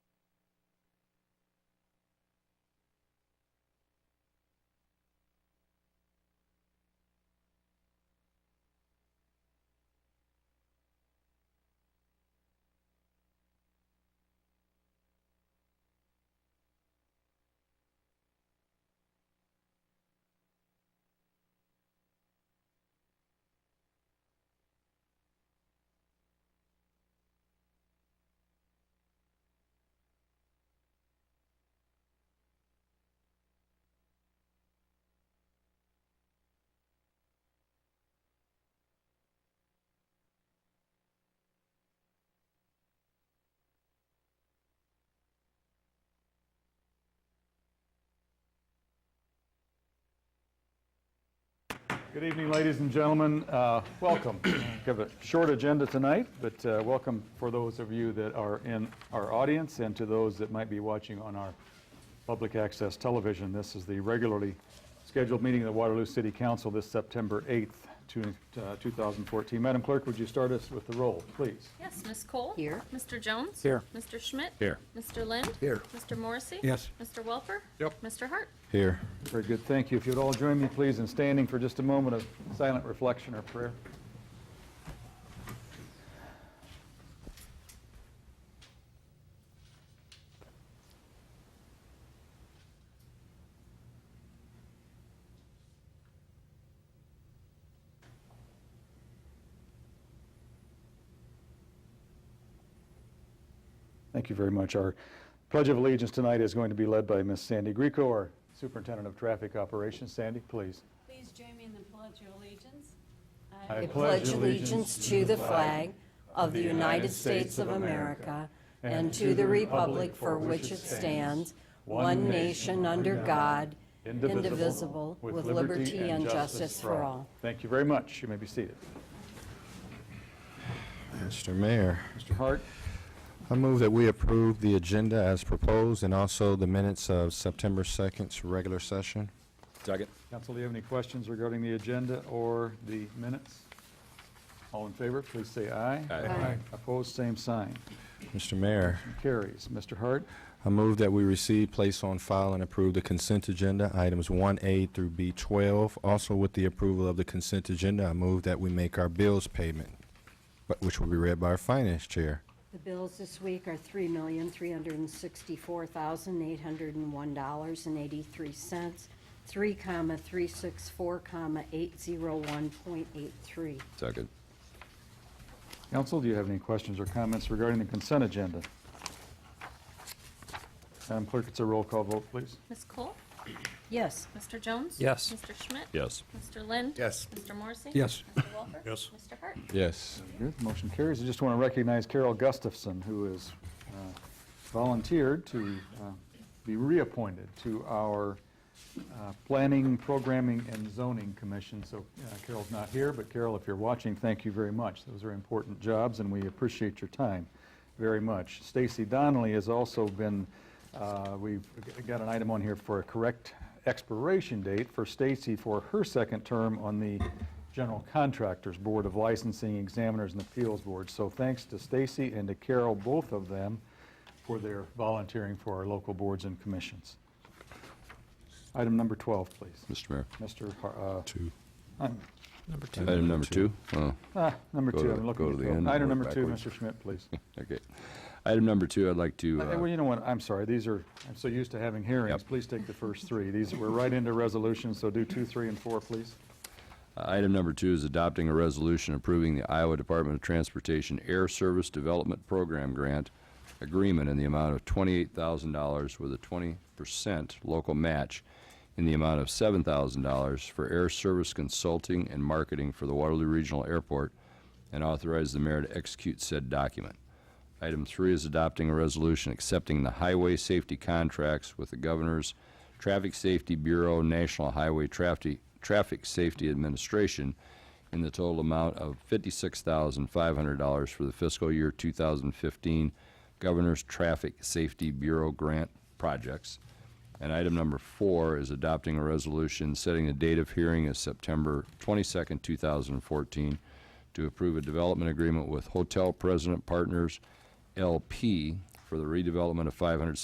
Good evening, ladies and gentlemen. Uh, Welcome. We have a short agenda tonight, but uh, welcome for those of you that are in our audience and to those that might be watching on our public access television. This is the regularly scheduled meeting of the Waterloo City Council this September 8th, two- uh, 2014. Madam Clerk, would you start us with the roll, please? Yes, Ms. Cole? Here. Mr. Jones? Here. Mr. Schmidt? Here. Mr. Lind? Here. Mr. Morrissey? Yes. Mr. Welper? Yep. Mr. Hart? Here. Very good, thank you. If you'd all join me, please, in standing for just a moment of silent reflection or prayer. Thank you very much. Our Pledge of Allegiance tonight is going to be led by Miss Sandy Greco, our Superintendent of Traffic Operations. Sandy, please. Please join me in the pledge of allegiance. I I pledge allegiance to the flag of the United States of America and to the republic for which it stands, one nation under God, indivisible, with liberty and justice for all. Thank you very much. You may be seated. Mr. Mayor, Mr. Hart, I move that we approve the agenda as proposed and also the minutes of September 2nd's regular session. Second. Council, do you have any questions regarding the agenda or the minutes? All in favor, please say aye. Aye. Opposed, same sign. Mr. Mayor, Carries. Mr. Hart, I move that we receive, place on file, and approve the consent agenda, items 1A through B12. Also, with the approval of the consent agenda, I move that we make our bills payment, but- which will be read by our finance chair. The bills this week are $3,364,801.83, 3, comma, 364, comma, 801.83. Second. Council, do you have any questions or comments regarding the consent agenda? Madam Clerk, it's a roll call vote, please. Ms. Cole? Yes. Mr. Jones? Yes. Mr. Schmidt? Yes. Mr. Lind? Yes. Mr. Morrissey? Yes. Mr. Welper? Yes. Mr. Hart? Yes. Good, the motion carries. I just want to recognize Carol Gustafson, who has uh, volunteered to uh, be reappointed to our uh, Planning, Programming, and Zoning Commission. So uh, Carol's not here, but Carol, if you're watching, thank you very much. Those are important jobs, and we appreciate your time very much. Stacy Donnelly has also been, uh, we've got an item on here for a correct expiration date for Stacy for her second term on the General Contractors Board of Licensing Examiners and Appeals Board. So thanks to Stacy and to Carol, both of them, for their volunteering for our local boards and commissions. Item number 12, please. Mr. Mayor. Mr. Har- uh, Two. Number two. Item number two. Oh, Ah, number Go to two, I'm the- looking go at to the the- end and Item work number two, backwards. Mr. Schmidt, please. okay. Item number two, I'd like to, Uh, Well, uh, you know what, I'm sorry, these are, I'm so used to having hearings. Yep. Please take the first three. These, we're right into resolutions, so do two, three, and four, please. item number two is adopting a resolution approving the Iowa Department of Transportation Air Service Development Program Grant Agreement in the amount of $28,000 with a 20% local match in the amount of $7,000 for air service consulting and marketing for the Waterloo Regional Airport and authorize the mayor to execute said document. Item three is adopting a resolution accepting the highway safety contracts with the Governor's Traffic Safety Bureau, National Highway Traffic, Traffic Safety Administration in the total amount of $56,500 for the fiscal year 2015 Governor's Traffic Safety Bureau grant projects. And item number four is adopting a resolution setting the date of hearing as September 22nd, 2014, to approve a development agreement with Hotel President Partners LP for the redevelopment of 500